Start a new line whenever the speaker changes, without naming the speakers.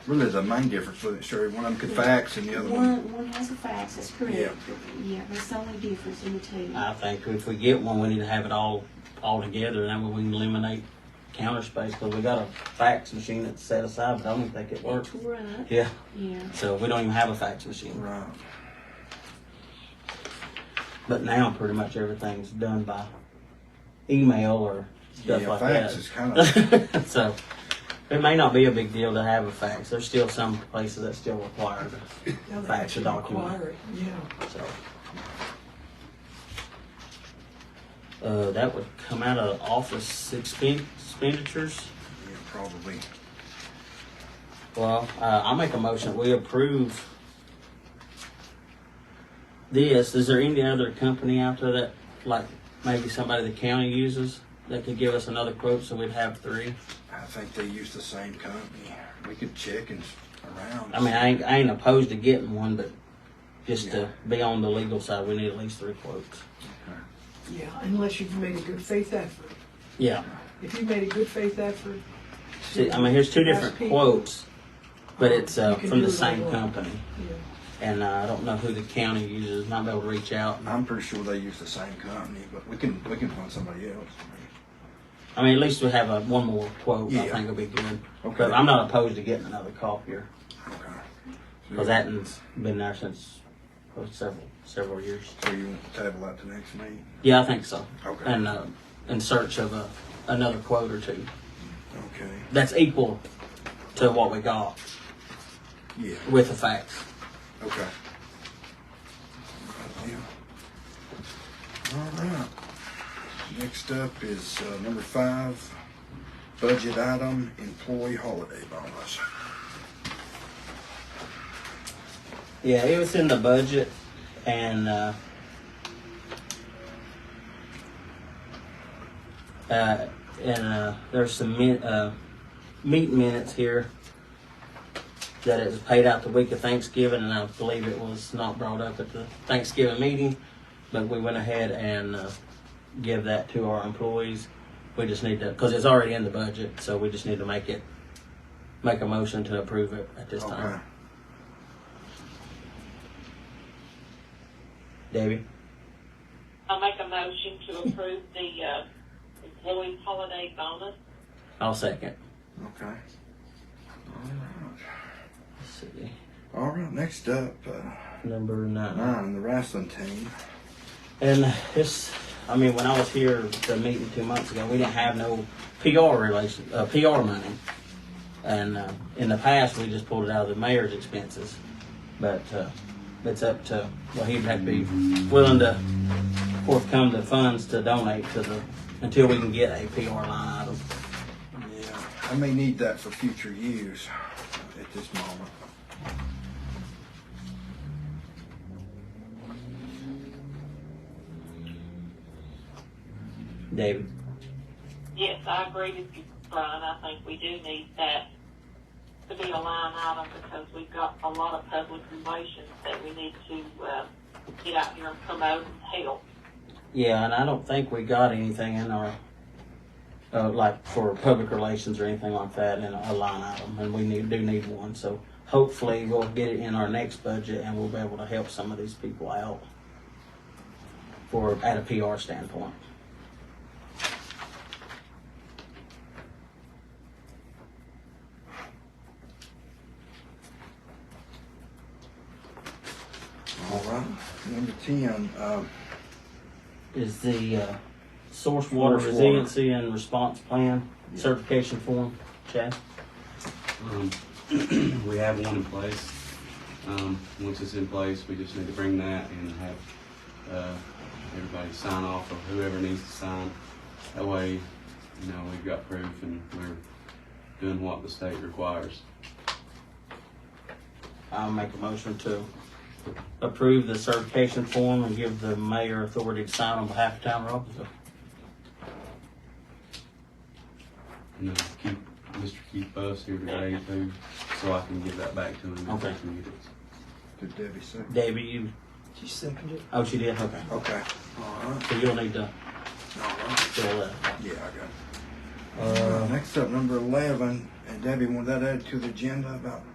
Really, there's a main difference with it, Sherry. One of them could fax and the other one.
One, one has a fax, that's correct.
Yeah.
Yeah, that's the only difference in the two.
I think if we get one, we need to have it all, all together, and that way we can eliminate counter space, because we got a fax machine that's set aside, but I don't think it
They
works.
tore up,
Yeah,
yeah.
so we don't even have a fax machine.
Right.
But now, pretty much everything's done by email or stuff
Yeah,
like
fax
that.
is kinda-
so it may not be a big deal to have a fax. There's still some places that still require it.
They'll
Fax
actually
document.
require it, Yeah,
So uh, that would come out of office expen- expenditures.
Yeah, probably.
Well, uh, I make a motion. We approve this. Is there any other company out there that, like, maybe somebody the county uses that could give us another quote so we'd have three?
I think they use the same company. We could check and s- around.
I mean, I ain't, I ain't opposed to getting one, but just
Yeah.
to be on the legal side, we need at least three quotes.
yeah, unless you've made a good faith effort.
Yeah.
If you made a good faith effort.
See, I mean, here's two
to ask
different
people,
quotes, but it's uh,
You can
from
do
the
it
same
online.
company.
yeah.
And uh, I don't know who the county uses. Might be able to reach out.
I'm pretty sure they use the same company, but we can we can find somebody else.
I mean, at least we have a, one more quote. I
Yeah.
think will be good.
Okay.
But I'm not opposed to getting another copier
Okay.
because that one's been there since oh, several several years.
So you want to table that to next meeting?
Yeah, I think so.
Okay.
And uh, in search of a, another quote or two
Okay.
that's equal to what we got
Yeah.
with the facts.
Okay. Yeah. All right. Next up is uh, number five, budget item, employee holiday bonus.
Yeah, it was in the budget, and uh, uh, and uh, there's some min- uh, meet minutes here that it was paid out the week of Thanksgiving, and I believe it was not brought up at the Thanksgiving meeting, but we went ahead and uh, give that to our employees. We just need to, because it's already in the budget, so we just need to make it, make a motion to approve it at this
Okay.
time. Debbie.
I'll make a motion to approve the, uh, employee holiday bonus.
I'll second.
Okay. All right.
Let's see.
All right. Next up, uh,
Number nine.
nine, the wrestling team.
And this, I mean, when I was here at the meeting two months ago, we didn't have no PR relation, uh, PR money. And uh, in the past, we just pulled it out of the mayor's expenses. But uh, it's up to, well, he'd have to be willing to forthcome the funds to donate to the, until we can get a PR line item.
Yeah. I may need that for future use at this moment.
David.
Yes, I agree with you, Brian. I think we do need that to be a line item because we've got a lot of public relations that we need to, uh, get out here and promote and help.
Yeah, and I don't think we got anything in our, uh, like for public relations or anything like that in a line item, and we need, do need one, so hopefully we'll get it in our next budget and we'll be able to help some of these people out for, at a PR standpoint.
All right. Number ten, uh,
Is the, uh,
Source
source water
water.
resiliency and response plan certification form, Chad?
Um, we have one in place. Um, once it's in place, we just need to bring that and have uh, everybody sign off or whoever needs to sign. That way, you know, we've got proof and we're doing what the state requires.
I'll make a motion to approve the certification form and give the mayor authority to sign on behalf of town of Robbinsville.
And then keep Mr. Keith Buss here today too, so I can give that back to him. if he
Okay.
can get
did
it.
Debbie say?
Debbie, you,
Did you second it?
oh, she did, okay.
Okay. All right.
So you'll need to
All right.
fill that.
Yeah, I got it. Uh, next up, number eleven, and Debbie, want that added to the agenda about